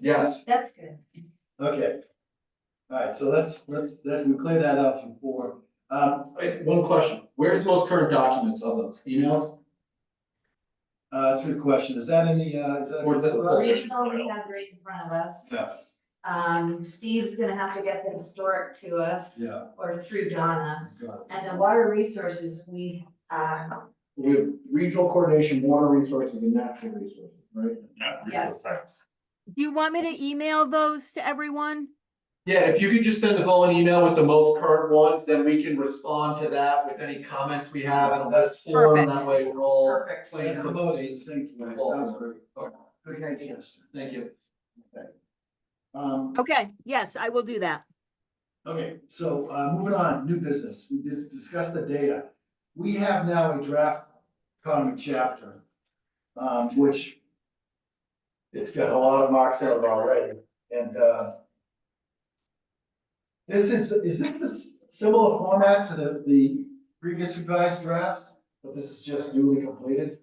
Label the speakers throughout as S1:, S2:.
S1: Yes,
S2: That's good.
S3: Okay. All right, so let's, let's, then we clear that out from four. Um,
S4: Wait, one question, where's most current documents of those emails?
S3: uh, that's a good question. Is that in the, uh, is that?
S4: Or is that-
S2: Regional, we have right in front of us.
S3: Yeah,
S2: Um, Steve's gonna have to get the historic to us.
S3: Yeah.
S2: Or through Donna.
S3: got it.
S2: And the water resources, we, uh,
S4: We have regional coordination, water resources and natural resources, right?
S2: Yeah.
S5: Do you want me to email those to everyone?
S4: Yeah, if you could just send us all an email with the most current ones, then we can respond to that with any comments we have and let's form,
S5: Perfect.
S4: that way we're all.
S1: perfect.
S4: clear.
S3: That's the most succinct way. Sounds very-
S4: Okay,
S3: Good idea.
S4: Thank you.
S3: Um,
S5: Okay, yes, I will do that.
S3: Okay, so uh, moving on, new business, we just discussed the data. We have now a draft economy chapter, um, which it's got a lot of marks out already, and uh, this is, is this the s- similar format to the, the previous revised drafts, but this is just newly completed?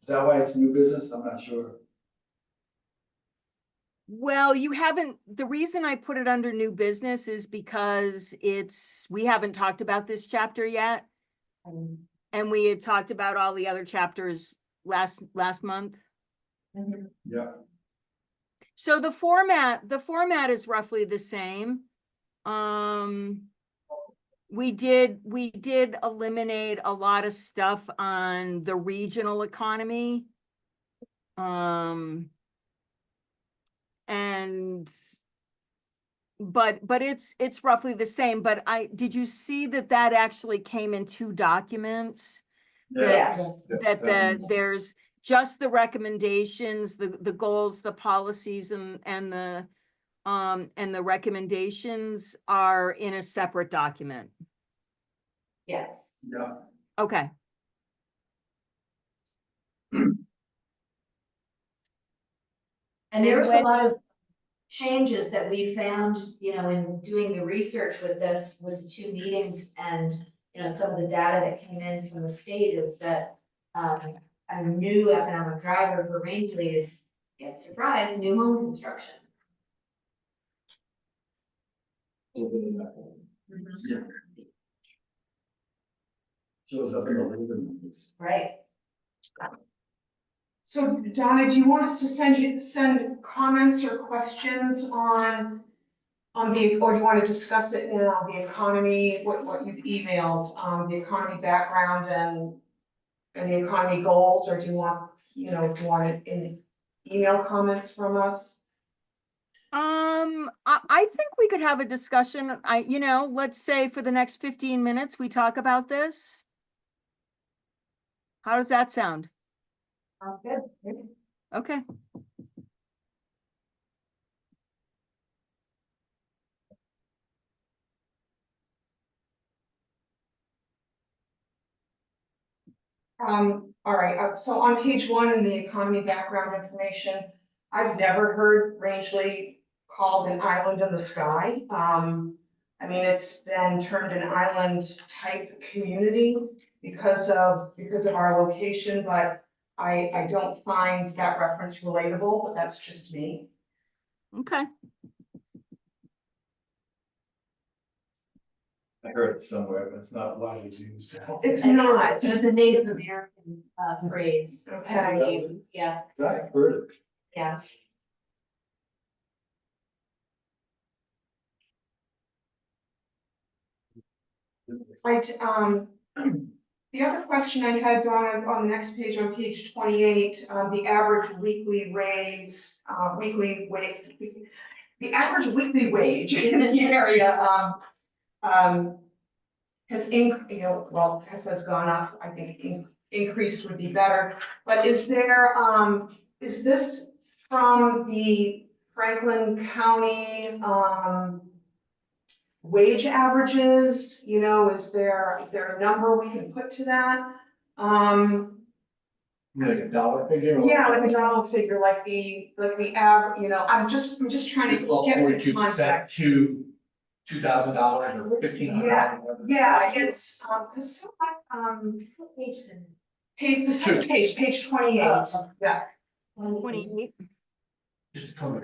S3: Is that why it's new business? I'm not sure.
S5: Well, you haven't, the reason I put it under new business is because it's, we haven't talked about this chapter yet.
S2: um,
S5: And we had talked about all the other chapters last, last month.
S2: Mm-hmm.
S3: Yeah.
S5: So the format, the format is roughly the same. Um, we did, we did eliminate a lot of stuff on the regional economy. Um, and but, but it's, it's roughly the same, but I, did you see that that actually came in two documents?
S2: Yes.
S3: Um,
S5: that the, there's just the recommendations, the, the goals, the policies and, and the, um, and the recommendations are in a separate document.
S2: yes.
S3: Yeah.
S5: Okay,
S2: And there
S5: And
S2: was a
S5: when-
S2: lot of changes that we found, you know, in doing the research with this, with the two meetings and, you know, some of the data that came in from the state is that um, a new economic driver for Rangeley is, get surprised, new home construction.
S3: Shows up in the labor numbers.
S2: Right,
S1: So Donna, do you want us to send you, send comments or questions on, on the, or do you want to discuss it now, the economy, what, what you've emailed, um, the economy background and and the economy goals, or do you want, you know, do you want it in email comments from us?
S5: um, I, I think we could have a discussion, I, you know, let's say for the next fifteen minutes, we talk about this. How does that sound?
S2: sounds good.
S5: Okay,
S1: Um, all right, uh, so on page one in the economy background information, I've never heard Rangeley called an island in the sky. Um, I mean, it's been termed an island type community because of, because of our location, but I, I don't find that reference relatable, but that's just me.
S5: okay,
S3: I heard it somewhere, but it's not widely used.
S1: It's not,
S2: It's a Native American uh, phrase. that
S1: okay,
S2: we use, Yeah,
S3: I heard it.
S2: yeah.
S1: right, um, The other question I had, Donna, on the next page, on page twenty-eight, uh, the average weekly raise, uh, weekly wage, the average weekly wage in the area, um, um, has inc, you know, well, has, has gone up, I think in- increase would be better, but is there, um, is this from the Franklin County, um, wage averages, you know, is there, is there a number we can put to that? Um,
S4: Like a dollar figure? or-
S1: yeah, like a dollar figure, like the, like the average, you know, I'm just, I'm just trying
S4: It's
S1: to
S4: up
S1: get
S4: forty-two
S1: some
S4: percent
S1: context.
S4: to two thousand dollars or fifteen hundred.
S1: Yeah, it's, um, cause so I, um,
S2: What page is it?
S1: page, the second page, page twenty-eight, yeah.
S2: One of the-
S5: twenty-eight.
S4: Just to come